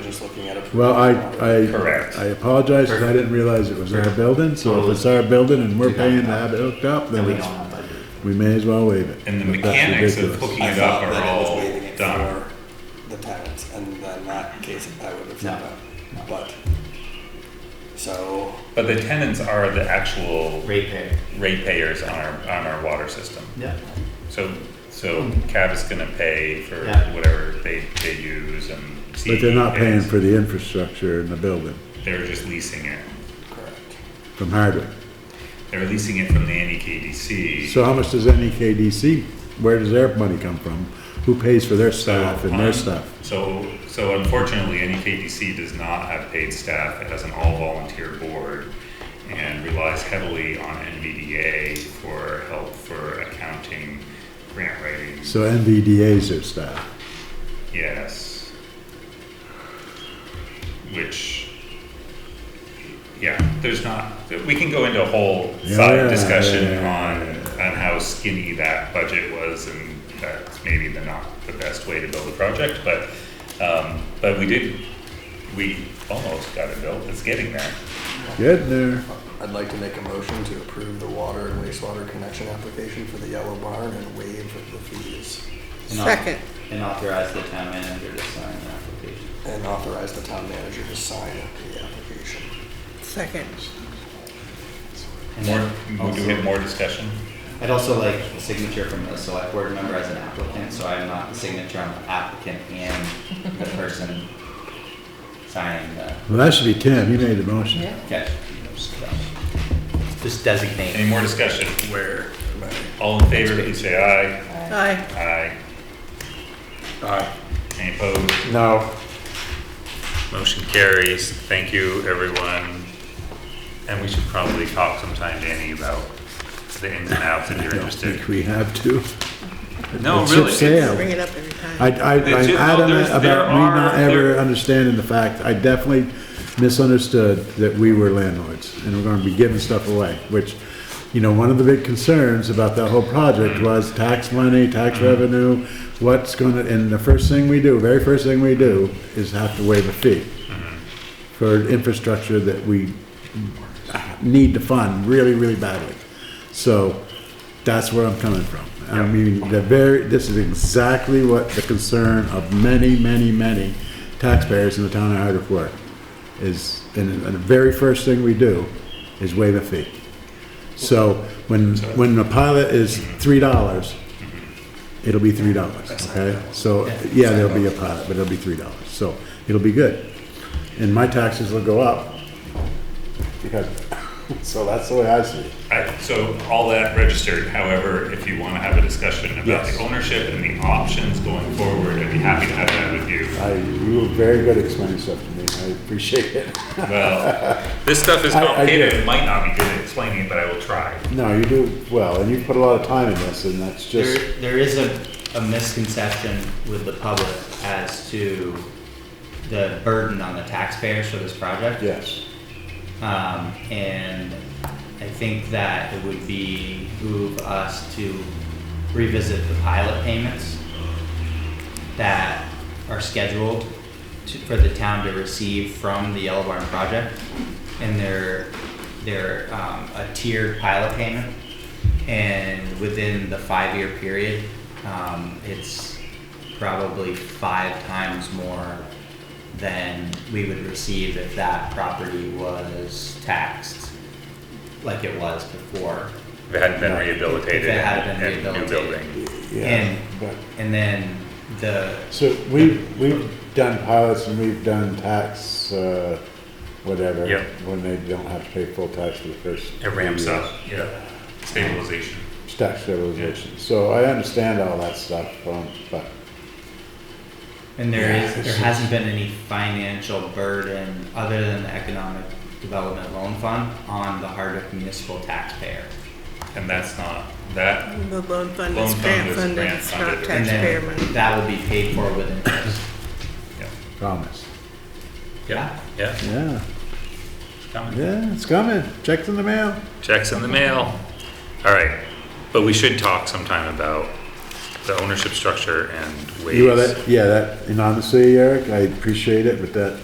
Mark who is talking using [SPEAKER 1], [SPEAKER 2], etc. [SPEAKER 1] just looking at a.
[SPEAKER 2] Well, I,
[SPEAKER 3] Correct.
[SPEAKER 2] I, I apologize, because I didn't realize it was our building, so if it's our building and we're paying to have it hooked up, then
[SPEAKER 4] we
[SPEAKER 2] it's,
[SPEAKER 4] don't have that.
[SPEAKER 2] we may as well waive it.
[SPEAKER 3] And the
[SPEAKER 2] But that's
[SPEAKER 3] mechanics of
[SPEAKER 2] ridiculous.
[SPEAKER 3] hooking
[SPEAKER 1] I
[SPEAKER 3] it
[SPEAKER 1] thought
[SPEAKER 3] up are
[SPEAKER 1] that it was
[SPEAKER 3] all
[SPEAKER 1] waiving it
[SPEAKER 3] done.
[SPEAKER 1] for The tenants, and then that case, I would have
[SPEAKER 4] No,
[SPEAKER 1] said
[SPEAKER 4] no.
[SPEAKER 1] that, but, so,
[SPEAKER 3] But the tenants are the actual
[SPEAKER 4] Ratepayer.
[SPEAKER 3] ratepayers on our, on our water system.
[SPEAKER 4] Yeah.
[SPEAKER 3] So, so CAV is gonna pay for
[SPEAKER 4] Yeah.
[SPEAKER 3] whatever they, they use and.
[SPEAKER 2] But they're not
[SPEAKER 3] CE
[SPEAKER 2] paying
[SPEAKER 3] pays.
[SPEAKER 2] for the infrastructure in the building
[SPEAKER 3] They're just leasing it.
[SPEAKER 1] correct.
[SPEAKER 2] from Hardwick.
[SPEAKER 3] They're leasing it from the E NEKDC.
[SPEAKER 2] So how much does NEKDC, where does their money come from? Who pays for their staff and their
[SPEAKER 3] Um,
[SPEAKER 2] stuff?
[SPEAKER 3] So, so unfortunately, E NEKDC does not have paid staff. It has an all-volunteer board and relies heavily on NVDA for help for accounting, grant writing.
[SPEAKER 2] So NVDA's their staff.
[SPEAKER 3] Yes. Which, yeah, there's not, we can go into a whole
[SPEAKER 2] Yeah,
[SPEAKER 3] side
[SPEAKER 2] yeah,
[SPEAKER 3] discussion
[SPEAKER 2] yeah,
[SPEAKER 3] on, on how skinny that budget was and that's maybe the not the best way to build a project, but, um, but we did, we almost got it built, it's getting there.
[SPEAKER 2] Good there.
[SPEAKER 1] I'd like to make a motion to approve the water and wastewater connection application for the yellow barn and waive the fees,
[SPEAKER 4] And au-
[SPEAKER 5] Second.
[SPEAKER 4] And authorize the town manager to sign the application.
[SPEAKER 1] and authorize the town manager to sign the application.
[SPEAKER 5] Second.
[SPEAKER 4] And
[SPEAKER 3] More,
[SPEAKER 4] then
[SPEAKER 3] do
[SPEAKER 2] Oh,
[SPEAKER 4] also-
[SPEAKER 3] we have more discussion?
[SPEAKER 4] I'd also like a signature from the select board member as an applicant, so I'm not the signature, I'm the applicant and the person signing the,
[SPEAKER 2] Well, that should be Tim, he made the motion.
[SPEAKER 4] okay. Just designate.
[SPEAKER 3] Any more discussion?
[SPEAKER 1] Where? am I?
[SPEAKER 3] All in favor, please say aye.
[SPEAKER 5] Aye.
[SPEAKER 3] Aye.
[SPEAKER 1] Aye.
[SPEAKER 3] Any opposed?
[SPEAKER 2] No.
[SPEAKER 3] Motion carries. Thank you, everyone. And we should probably talk sometime, Danny, about the ins and outs if
[SPEAKER 2] I
[SPEAKER 3] you're
[SPEAKER 2] don't
[SPEAKER 3] interested.
[SPEAKER 2] think we have to.
[SPEAKER 3] No,
[SPEAKER 2] It's
[SPEAKER 3] really.
[SPEAKER 2] just
[SPEAKER 3] it's-
[SPEAKER 2] sale.
[SPEAKER 5] Bring it up every time.
[SPEAKER 2] I, I,
[SPEAKER 3] It's
[SPEAKER 2] I'm
[SPEAKER 3] just-
[SPEAKER 2] adamant
[SPEAKER 3] there's- there
[SPEAKER 2] about me not
[SPEAKER 3] are-
[SPEAKER 2] ever
[SPEAKER 3] there-
[SPEAKER 2] understanding the fact, I definitely misunderstood that we were landlords and we're gonna be giving stuff away, which, you know, one of the big concerns about that whole project was tax money, tax
[SPEAKER 3] Mm-hmm.
[SPEAKER 2] revenue, what's gonna, and the first thing we do, very first thing we do is have to waive a fee
[SPEAKER 3] Mm-hmm.
[SPEAKER 2] for infrastructure that we need to fund really, really badly. So that's where I'm coming from. I mean, the very, this is exactly what the concern of many, many, many taxpayers in the town of Hardwick were. Is, and and the very first thing we do is waive a fee. So when, when the pilot is three dollars, it'll be three dollars, okay? So, yeah, there'll be a pilot, but it'll be three dollars, so it'll be good. And my taxes will go up. Because, so that's the way I see it.
[SPEAKER 3] I- So all that registered. However, if you want to have a discussion about
[SPEAKER 2] Yes.
[SPEAKER 3] the ownership and the options going forward, I'd be happy to have that with you.
[SPEAKER 2] I, you were very good at explaining stuff to me, I appreciate it.
[SPEAKER 3] Well, this stuff is
[SPEAKER 2] I- I
[SPEAKER 3] complicated.
[SPEAKER 2] do.
[SPEAKER 3] It might not be good at explaining, but I will try.
[SPEAKER 2] No, you do well, and you put a lot of time in this, and that's just,
[SPEAKER 4] There, there is a, a misconception with the public as to the burden on the taxpayers for this project.
[SPEAKER 2] yes.
[SPEAKER 4] Um, and I think that it would be move us to revisit the pilot payments that are scheduled to, for the town to receive from the Yellow Barn project. And they're, they're, um, a tiered pilot payment. And within the five-year period, um, it's probably five times more than we would receive if that property was taxed like it was before.
[SPEAKER 3] If it hadn't been rehabilitated
[SPEAKER 4] If it hadn't
[SPEAKER 3] and
[SPEAKER 4] been
[SPEAKER 3] and new
[SPEAKER 4] rehabilitated.
[SPEAKER 3] building.
[SPEAKER 2] Yeah,
[SPEAKER 4] And-
[SPEAKER 2] but,
[SPEAKER 4] And then the,
[SPEAKER 2] so we, we've done pilots and we've done tax, uh, whatever.
[SPEAKER 3] Yeah.
[SPEAKER 2] When they don't have to pay full tax for the first.
[SPEAKER 3] It ramps
[SPEAKER 2] few years.
[SPEAKER 3] up, yeah. Stabilization.
[SPEAKER 2] Tax stabilization, so I understand all that stuff, um, but,
[SPEAKER 4] and there
[SPEAKER 2] Yeah,
[SPEAKER 4] is,
[SPEAKER 2] it's
[SPEAKER 4] there hasn't been any financial burden other than the Economic Development Loan Fund on the Hardwick municipal taxpayer.
[SPEAKER 3] And that's not, that
[SPEAKER 5] The loan fund
[SPEAKER 3] Loan
[SPEAKER 5] is
[SPEAKER 3] fund
[SPEAKER 5] grant
[SPEAKER 3] is
[SPEAKER 5] funded,
[SPEAKER 3] grant
[SPEAKER 5] it's
[SPEAKER 3] funded. And
[SPEAKER 5] not
[SPEAKER 4] And
[SPEAKER 5] taxpayer money.
[SPEAKER 4] then that will be paid for with interest.
[SPEAKER 2] promise.
[SPEAKER 3] Yeah,
[SPEAKER 4] Yeah.
[SPEAKER 3] yeah,
[SPEAKER 2] Yeah,
[SPEAKER 3] it's coming.
[SPEAKER 2] yeah, it's coming, check's in the mail.
[SPEAKER 3] Check's in the mail. All right, but we should talk sometime about the ownership structure and ways.
[SPEAKER 2] E You know, that, yeah, that, and honestly, Eric, I appreciate it, but that